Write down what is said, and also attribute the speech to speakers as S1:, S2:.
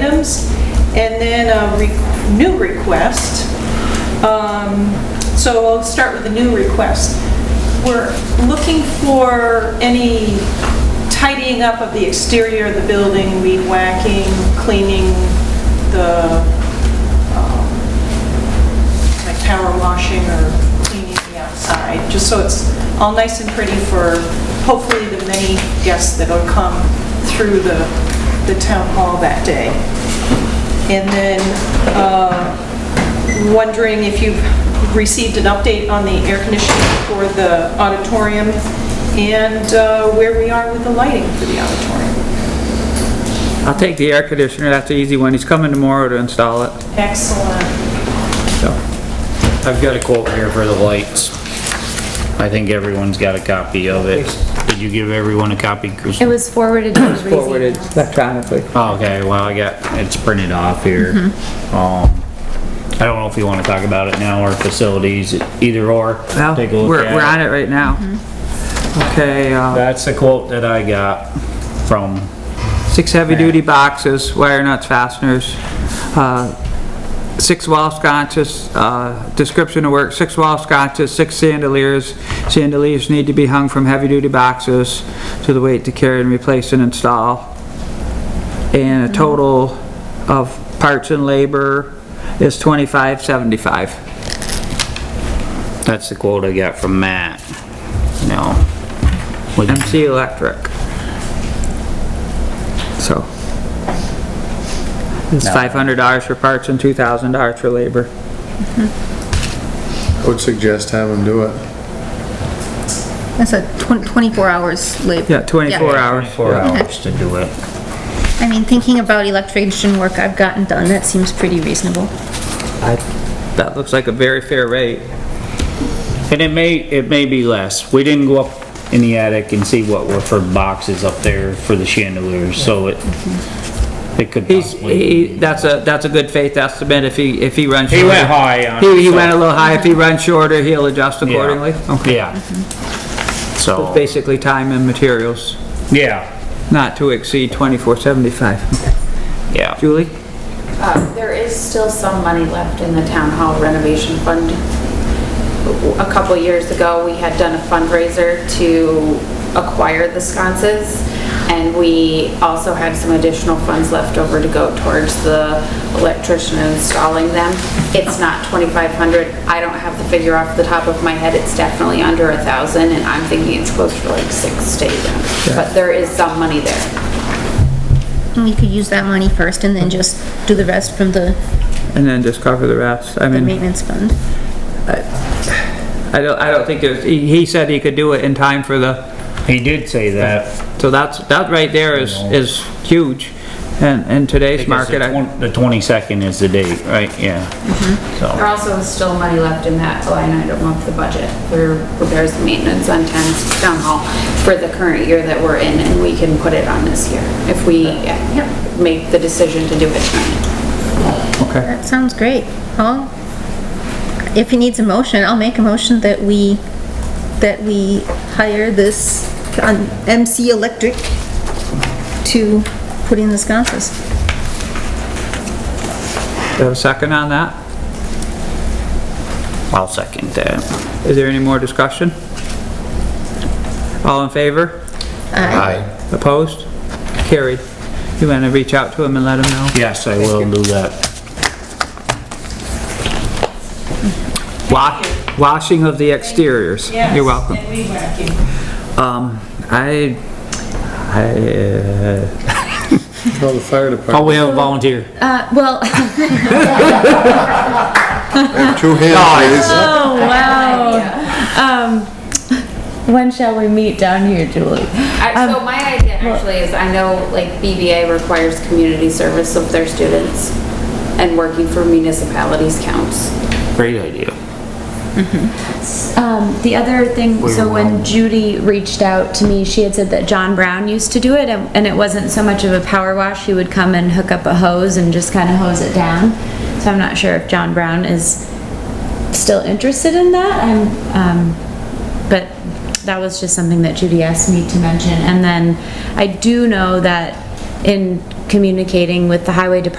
S1: changes. And then a re- new request. Um, So I'll start with the new request. We're looking for any tidying up of the exterior of the building, weed whacking, cleaning the like power washing or cleaning the outside, just so it's all nice and pretty for hopefully the many guests that'll come through the, the town hall that day. And then, uh, wondering if you've received an update on the air conditioning for the auditorium and uh, where we are with the lighting for the auditorium.
S2: I'll take the air conditioner, that's an easy one. He's coming tomorrow to install it,
S1: Excellent.
S2: so.
S3: I've got a quote here for the lights. I think everyone's got a copy of it. Did you give everyone a copy, Chris?
S4: It was Uh, forwarded to Breezy.
S2: Forwarded electronically.
S3: Oh, Okay, well, I got, it's printed off here.
S2: Mm-hmm.
S3: Um, I don't know if you want to talk about it now or facilities, either or.
S2: Well,
S3: Take a look
S2: we're,
S3: at
S2: we're on it right now. Okay, uh,
S3: That's the quote that I got from,
S2: six heavy-duty boxes, wire nuts, fasteners, uh, six wall sconces, uh, description of work, six wall sconces, six chandeliers. Chandeliers need to be hung from heavy-duty boxes to the weight to carry and replace and install. And a total of parts and labor is twenty-five seventy-five.
S3: that's the quote I got from Matt. No. With-
S2: MC Electric. So. It's
S3: No.
S2: five hundred dollars for parts and two thousand dollars for labor.
S5: I would suggest have them do it.
S6: That's a twen- 24 hours late.
S2: Yeah, twenty-four hours.
S3: Four
S2: yeah.
S3: hours to do it.
S6: I mean, thinking about electrician work I've gotten done, that seems pretty reasonable.
S2: That looks like a very fair rate.
S3: And it may, it may be less. We didn't go up in the attic and see what were for boxes up there for the chandeliers, so it, it could
S2: He's,
S3: possibly.
S2: he, that's a, that's a good faith estimate if he, if he runs.
S3: He went
S2: shorter.
S3: high on it,
S2: He, he
S3: so-
S2: went a little high. If he runs shorter, he'll adjust
S3: Yeah.
S2: accordingly. Okay.
S3: Yeah. So,
S2: Basically time and materials,
S3: yeah,
S2: not to exceed twenty-four seventy-five.
S3: yeah.
S2: Julie?
S7: Uh, There is still some money left in the town hall renovation fund. A couple years ago, we had done a fundraiser to acquire the sconces, and we also had some additional funds left over to go towards the electrician installing them. It's not 2,500, I don't have the figure off the top of my head, it's definitely under a 1,000, and I'm thinking it's closer to like six to eight hundred. but there is some money there.
S6: And we could use that money first and then just do the rest from the
S2: And then just cover the rest. I
S6: the
S2: mean.
S6: maintenance fund.
S2: I don't, I don't think there's, he, he said he could do it in time for the,
S3: He did say that.
S2: so that's, that right there is, is huge. And, in today's
S3: because
S2: market,
S3: The
S2: I-
S3: twen- the twenty-second is the date, right? Yeah.
S7: There
S3: So,
S7: also is still money left in that line item of the budget for repairs and maintenance on town's town hall for the current year that we're in, and we can put it on this year if we yeah, make the decision to do it tonight.
S2: okay.
S6: That sounds great. Paul? If he needs a motion, I'll make a motion that we, that we hire this um, MC Electric to put in the sconces.
S2: Do you have a second on that?
S3: I'll second that.
S2: Is there any more discussion? All in favor?
S5: Aye.
S2: Opposed? Carried. You wanna reach out to him and let him know?
S3: Yes, I will do that.
S2: Wa- washing of the exteriors. You're welcome.
S1: And weed whacking.
S2: Um, I, I, uh,
S5: Tell the fire department.
S3: Oh, we have a volunteer.
S6: Uh, well,
S5: Oh, Two hands, please.
S4: Oh, wow. Um, when shall we meet down here, Julie?
S7: I- So my idea actually is, I know like BVA requires community service of their students, and working for municipalities counts.
S3: Great idea.
S4: Um, the other thing, so when Judy reached out to me, she had said that John Brown used to do it, and, and it wasn't so much of a power wash, he would come and hook up a hose and just kind of hose it down. So I'm not sure if John Brown is still interested in that, I'm, um, but that was just something that Judy asked me to mention. And then I do know that in communicating with the highway department